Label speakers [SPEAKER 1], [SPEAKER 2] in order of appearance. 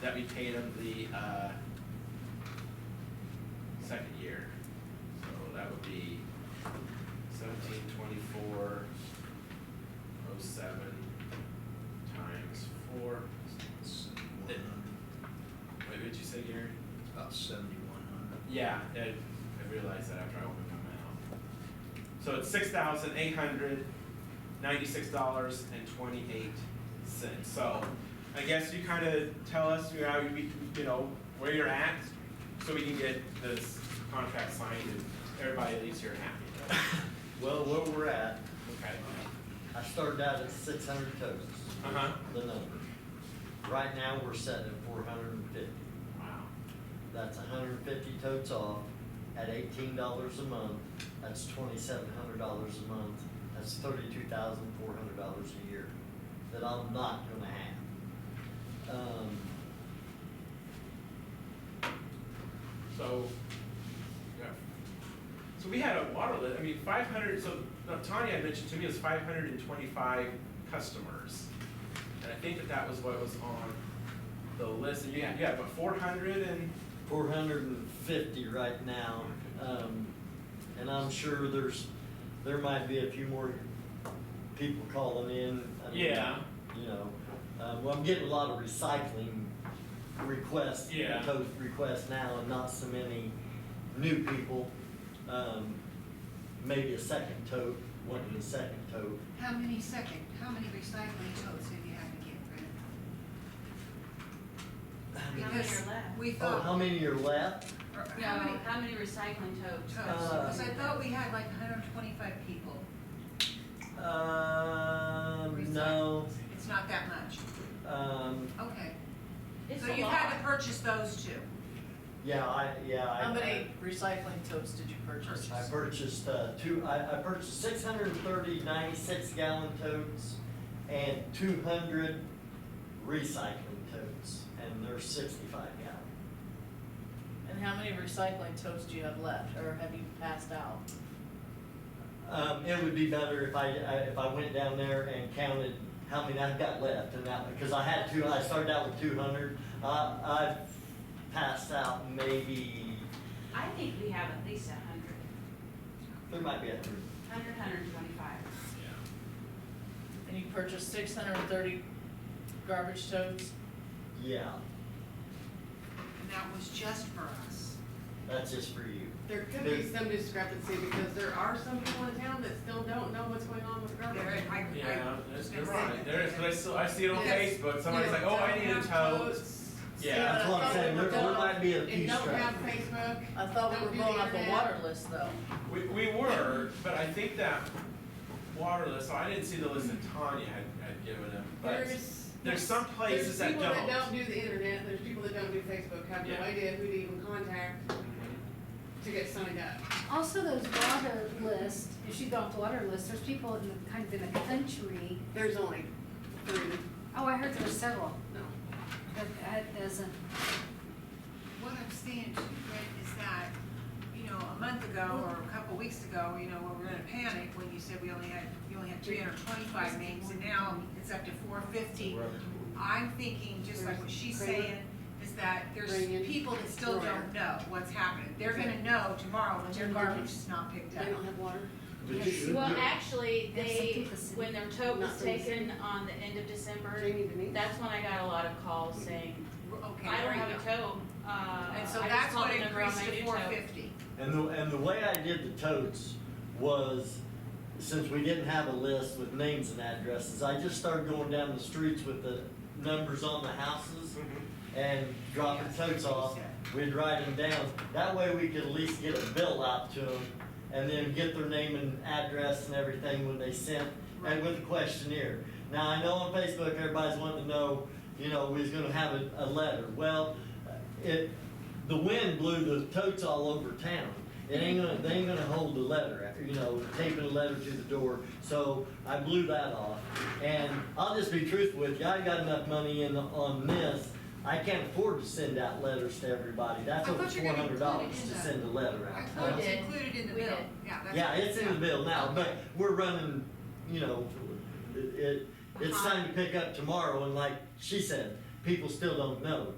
[SPEAKER 1] that we pay them the, uh, second year. So that would be seventeen twenty-four oh seven times four. Wait, what did you say, Gary?
[SPEAKER 2] About seventy-one hundred.
[SPEAKER 1] Yeah, I, I realized that after I opened my mouth. So it's six thousand eight hundred ninety-six dollars and twenty-eight cents. So I guess you kind of tell us, you know, we, you know, where you're at, so we can get this contract signed and everybody leaves here happy.
[SPEAKER 3] Well, where we're at,
[SPEAKER 1] Okay,
[SPEAKER 3] I started out at six hundred totes,
[SPEAKER 1] uh-huh,
[SPEAKER 3] the number. Right now, we're setting at four hundred and fifty.
[SPEAKER 1] wow,
[SPEAKER 3] That's hundred and fifty totes off at eighteen dollars a month. That's twenty-seven hundred dollars a month. That's thirty-two thousand four hundred dollars a year that I'm not gonna have. Um,
[SPEAKER 1] so, yeah. So we had a water lit, I mean, five hundred, so now Tanya had mentioned to me it was five hundred and twenty-five customers. And I think that that was what was on the list, and you had, you had about four hundred and,
[SPEAKER 3] four hundred and fifty right now. Um, and I'm sure there's, there might be a few more people calling in. I mean,
[SPEAKER 1] Yeah.
[SPEAKER 3] You know, uh, well, I'm getting a lot of recycling requests.
[SPEAKER 1] Yeah.
[SPEAKER 3] Those requests now and not so many new people. Um, maybe a second tote, wanting a second tote.
[SPEAKER 4] How many second, how many recycling totes have you had to get rid of?
[SPEAKER 5] How many
[SPEAKER 4] Because
[SPEAKER 5] are left?
[SPEAKER 4] We
[SPEAKER 3] Oh, how
[SPEAKER 4] thought,
[SPEAKER 3] many are left?
[SPEAKER 4] or
[SPEAKER 5] No,
[SPEAKER 4] how many
[SPEAKER 5] how many recycling totes?
[SPEAKER 4] totes,
[SPEAKER 6] Oh,
[SPEAKER 3] Uh,
[SPEAKER 4] because I thought we had like hundred and twenty-five people.
[SPEAKER 3] Um, no,
[SPEAKER 4] recycling. It's not that much,
[SPEAKER 3] um,
[SPEAKER 4] okay.
[SPEAKER 5] It's
[SPEAKER 4] So
[SPEAKER 5] a
[SPEAKER 4] you've had to
[SPEAKER 5] lot.
[SPEAKER 4] purchase those two.
[SPEAKER 3] yeah, I, yeah, I.
[SPEAKER 7] How many recycling totes did you purchase?
[SPEAKER 3] I purchased, uh, two, I, I purchased six hundred and thirty ninety-six gallon totes and two hundred recycling totes, and they're sixty-five gallon.
[SPEAKER 7] And how many recycling totes do you have left, or have you passed out?
[SPEAKER 3] Um, it would be better if I, I- if I went down there and counted how many I've got left and that, because I had two, I started out with two hundred. Uh, I passed out maybe,
[SPEAKER 5] I think we have at least a hundred,
[SPEAKER 3] there might be a hundred.
[SPEAKER 5] hundred, hundred and twenty-five.
[SPEAKER 1] yeah,
[SPEAKER 7] And you purchased six hundred and thirty garbage totes?
[SPEAKER 3] Yeah,
[SPEAKER 4] And that was just for us.
[SPEAKER 3] that's just for you.
[SPEAKER 6] There could be some discrepancy because there are some people in town that still don't know what's going on with garbage.
[SPEAKER 4] There, I, I.
[SPEAKER 1] yeah, that's- you're
[SPEAKER 4] Yes.
[SPEAKER 1] right, there is, I still, I see it on
[SPEAKER 6] Yes.
[SPEAKER 1] Facebook, somebody's like, oh, I need a
[SPEAKER 6] Don't have
[SPEAKER 1] tote.
[SPEAKER 6] totes,
[SPEAKER 1] Yeah.
[SPEAKER 6] still
[SPEAKER 3] That's what I'm
[SPEAKER 6] don't
[SPEAKER 3] saying, there, there
[SPEAKER 6] don't-
[SPEAKER 3] might be a few
[SPEAKER 6] And don't have
[SPEAKER 3] stragglers.
[SPEAKER 6] Facebook.
[SPEAKER 7] I thought we
[SPEAKER 6] Don't
[SPEAKER 7] were
[SPEAKER 6] do
[SPEAKER 7] going
[SPEAKER 6] the
[SPEAKER 7] off the
[SPEAKER 6] internet.
[SPEAKER 7] water list though.
[SPEAKER 1] We, we were, but I think that water list, so I didn't see the list that Tanya had, had given him, but
[SPEAKER 6] There's.
[SPEAKER 1] there's some places
[SPEAKER 6] There's
[SPEAKER 1] that
[SPEAKER 6] people that don't do the internet, there's people that don't do Facebook, have no
[SPEAKER 1] Yeah.
[SPEAKER 6] idea who to even contact
[SPEAKER 1] Mhm.
[SPEAKER 6] to get signed up.
[SPEAKER 8] Also, those water lists, if you go off the water list, there's people in the, kind of in the country,
[SPEAKER 6] There's only three,
[SPEAKER 8] oh, I heard there were several,
[SPEAKER 6] no.
[SPEAKER 8] but that doesn't,
[SPEAKER 4] What I'm seeing too, Rick, is that, you know, a month ago or a couple weeks ago, you know, we were in a panic when you said we only had, you only had three hundred twenty-five names, and now it's up to four fifty. I'm thinking, just like what she's saying, is that there's
[SPEAKER 6] Bring in
[SPEAKER 4] people that still
[SPEAKER 6] Brian.
[SPEAKER 4] don't know what's happening. They're gonna know tomorrow when their garbage is not picked up.
[SPEAKER 6] They don't have water.
[SPEAKER 2] But you should,
[SPEAKER 5] Well,
[SPEAKER 2] do-
[SPEAKER 5] actually,
[SPEAKER 8] There's
[SPEAKER 5] they,
[SPEAKER 8] something for city.
[SPEAKER 5] when their
[SPEAKER 6] Not
[SPEAKER 5] tote was
[SPEAKER 6] for the
[SPEAKER 5] taken on the end of December,
[SPEAKER 6] Jamie Denise.
[SPEAKER 5] that's when I got a lot of calls saying,
[SPEAKER 4] Okay,
[SPEAKER 5] I
[SPEAKER 4] there
[SPEAKER 5] don't
[SPEAKER 4] you
[SPEAKER 5] have a
[SPEAKER 4] go.
[SPEAKER 5] tote, uh, I
[SPEAKER 4] And so
[SPEAKER 5] just
[SPEAKER 4] that's
[SPEAKER 5] called
[SPEAKER 4] what
[SPEAKER 5] the number on
[SPEAKER 4] increased
[SPEAKER 5] my
[SPEAKER 4] to
[SPEAKER 5] new
[SPEAKER 4] four
[SPEAKER 5] tote.
[SPEAKER 4] fifty.
[SPEAKER 3] And the, and the way I did the totes was, since we didn't have a list with names and addresses, I just started going down the streets with the numbers on the houses
[SPEAKER 1] Mm-hmm.
[SPEAKER 3] and dropping totes off. We'd write them down. That way we could at least get a bill out to them and then get their name and address and everything when they sent, and with a questionnaire. Now, I know on Facebook, everybody's wanting to know, you know, we's gonna have a, a letter. Well, it, the wind blew the totes all over town. It ain't gonna, they ain't gonna hold the letter, you know, taping a letter to the door, so I blew that off. And I'll just be truthful with you, I got enough money in, on this, I can't afford to send out letters to everybody. That's
[SPEAKER 4] I
[SPEAKER 3] over
[SPEAKER 4] thought you
[SPEAKER 3] four
[SPEAKER 4] were gonna
[SPEAKER 3] hundred
[SPEAKER 4] include
[SPEAKER 3] dollars
[SPEAKER 4] it in
[SPEAKER 3] to
[SPEAKER 4] the-
[SPEAKER 3] send a letter
[SPEAKER 4] I
[SPEAKER 3] out.
[SPEAKER 4] thought it was
[SPEAKER 5] did.
[SPEAKER 4] included in the
[SPEAKER 5] We
[SPEAKER 4] bill.
[SPEAKER 5] did.
[SPEAKER 4] Yeah, that's.
[SPEAKER 3] Yeah, it's in the bill now,
[SPEAKER 4] Yeah.
[SPEAKER 3] but we're running, you know, it, it- it's time to pick up tomorrow, and like she said, people still don't know.